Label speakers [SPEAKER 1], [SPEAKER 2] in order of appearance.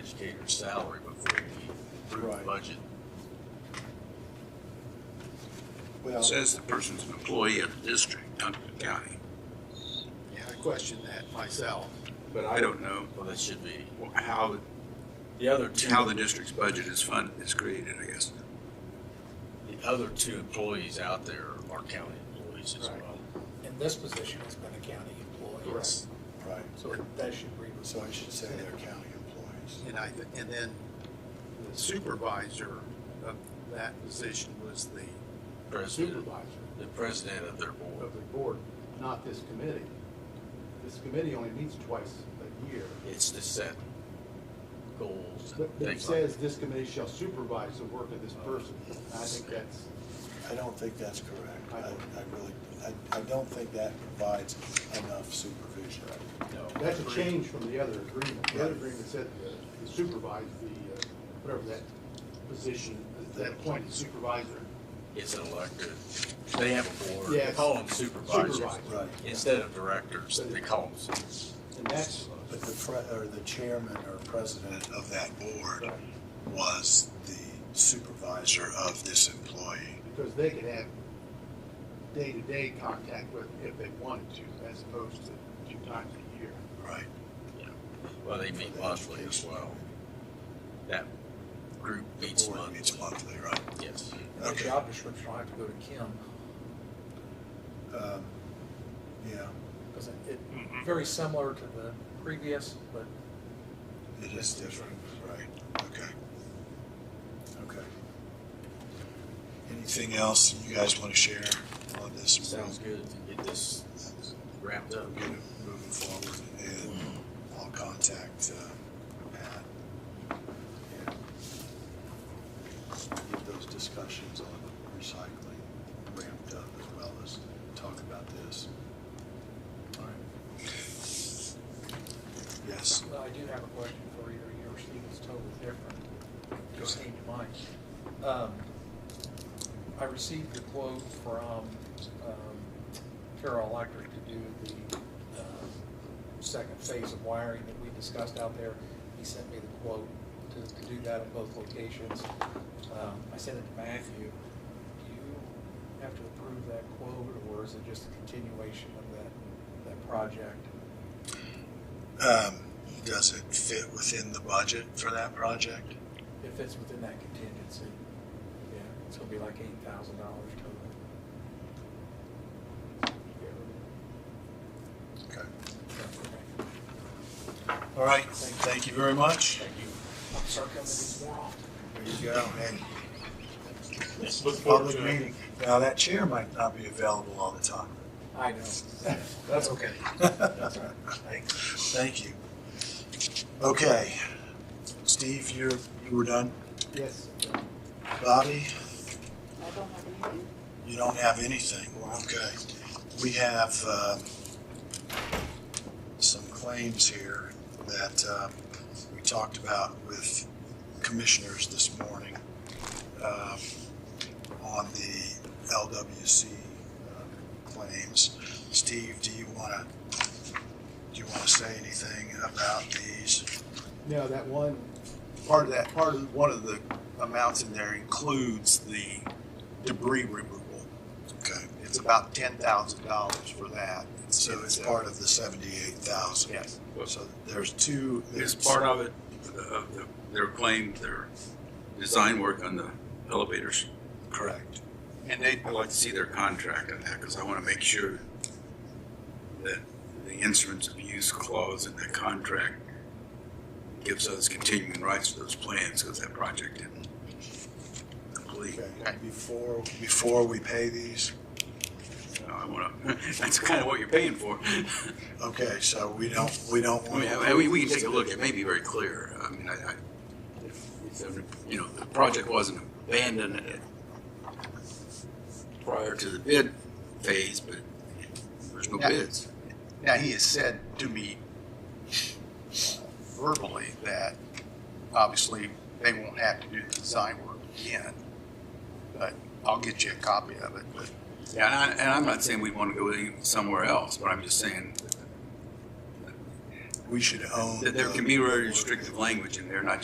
[SPEAKER 1] your salary before you approve the
[SPEAKER 2] Right.
[SPEAKER 1] budget.
[SPEAKER 2] Well,
[SPEAKER 3] Says the person's an employee of the district, not the county.
[SPEAKER 2] yeah, I questioned that myself.
[SPEAKER 1] But
[SPEAKER 3] I don't know
[SPEAKER 1] Well, that should be,
[SPEAKER 3] wh- how,
[SPEAKER 1] the other two,
[SPEAKER 3] how the district's budget is funded, is created, I guess.
[SPEAKER 1] the other two employees out there are county employees as
[SPEAKER 2] Right.
[SPEAKER 1] well.
[SPEAKER 4] And this position has been a county employee.
[SPEAKER 2] Correct. Right.
[SPEAKER 4] So that should read.
[SPEAKER 2] So I should say they're county employees.
[SPEAKER 4] And I,
[SPEAKER 5] And then the supervisor of that position was the,
[SPEAKER 1] President,
[SPEAKER 2] Supervisor
[SPEAKER 1] the president of their board.
[SPEAKER 2] of the board, not this committee. This committee only meets twice a year.
[SPEAKER 1] It's to set goals and
[SPEAKER 2] But It
[SPEAKER 1] things like
[SPEAKER 2] says this committee shall supervise the work of this person. And I think that's,
[SPEAKER 6] I don't think that's correct. I, I really, I, I don't think that provides enough supervision.
[SPEAKER 1] that. No.
[SPEAKER 2] that's a change from the other agreement. The other agreement said the supervise the, uh, whatever that position, that appointed supervisor.
[SPEAKER 1] It's an elected, they have a board, they
[SPEAKER 2] Yes.
[SPEAKER 1] call them supervisors.
[SPEAKER 2] Supervisor.
[SPEAKER 6] Right.
[SPEAKER 1] Instead of directors, they call them supervisors.
[SPEAKER 2] And that's,
[SPEAKER 6] But the pre, or the chairman or president of that board was the supervisor of this employee.
[SPEAKER 2] because they could have day-to-day contact with, if they wanted to, as opposed to two times a year.
[SPEAKER 6] Right.
[SPEAKER 1] Well, they meet monthly as well. That group
[SPEAKER 6] The
[SPEAKER 1] meets
[SPEAKER 6] board
[SPEAKER 1] monthly,
[SPEAKER 6] Meets monthly, right.
[SPEAKER 1] yes.
[SPEAKER 4] the job description, I have to go to Kim,
[SPEAKER 6] Um, Yeah,
[SPEAKER 4] because it, it- very similar to the previous, but
[SPEAKER 6] it is different, right, okay. Okay. Anything else you guys want to share on this?
[SPEAKER 1] Sounds good to get this wrapped up.
[SPEAKER 6] get it moving forward, and I'll contact uh, Pat and get those discussions on recycling ramped up as well as talk about this. All right. Yes,
[SPEAKER 4] Well, I do have a question for you, your seat is totally different, It just came to mind. Um, I received a quote from um, Carroll Electric to do the um, second phase of wiring that we discussed out there. He sent me the quote to, to do that in both locations. Um, I sent it to Matthew. Do you have to approve that quote, or is it just a continuation of that, that project?
[SPEAKER 6] um, does it fit within the budget for that project?
[SPEAKER 4] It fits within that contingency. Yeah, it's gonna be like eight thousand dollars total.
[SPEAKER 6] Okay. All right, thank you very much.
[SPEAKER 4] Thank you. I'll start coming this more often.
[SPEAKER 6] There you go, and
[SPEAKER 7] Look forward
[SPEAKER 6] public
[SPEAKER 7] to it.
[SPEAKER 6] meeting. Now, that chair might not be available all the time.
[SPEAKER 4] I know.
[SPEAKER 6] That's okay. Thank you. Okay. Steve, you're, you were done.
[SPEAKER 2] Yes.
[SPEAKER 6] Bobby,
[SPEAKER 8] I don't have anything.
[SPEAKER 6] you don't have anything. Okay. We have, um, some claims here that, um, we talked about with commissioners this morning, um, on the LWC uh, claims. Steve, do you wanna, do you wanna say anything about these?
[SPEAKER 2] Now, that one,
[SPEAKER 5] part of that, part of, one of the amounts in there includes the debris removal.
[SPEAKER 6] Okay.
[SPEAKER 5] It's about ten thousand dollars for that.
[SPEAKER 6] So it's part of the seventy-eight thousand.
[SPEAKER 5] Yes.
[SPEAKER 6] So there's two.
[SPEAKER 3] Is
[SPEAKER 6] there's-
[SPEAKER 3] part of it, of the, their claim, their design work on the elevators?
[SPEAKER 6] Correct.
[SPEAKER 3] And they, I'd like to see their contract on that, because I want to make sure that the instruments of use clause in that contract gives us continuing rights to those plans, because that project didn't complete.
[SPEAKER 6] Okay. Before, before we pay these,
[SPEAKER 3] So I want to, that's kind of what you're paying for.
[SPEAKER 6] okay, so we don't, we don't
[SPEAKER 3] I
[SPEAKER 6] want.
[SPEAKER 3] mean, I- we, we can take a look, it may be very clear, I mean, I, I, if, if, you know, the project wasn't abandoned at- prior to the bid phase, but there's no
[SPEAKER 5] Yeah.
[SPEAKER 3] bids.
[SPEAKER 5] Now, he has said to me verbally that obviously they won't have to do the design work again. But I'll get you a copy of it, but
[SPEAKER 3] Yeah, and, I, and I'm not saying we want to go any- somewhere else, but I'm just saying
[SPEAKER 6] We should own.
[SPEAKER 3] that there
[SPEAKER 6] the-
[SPEAKER 3] can be very restrictive language in there, not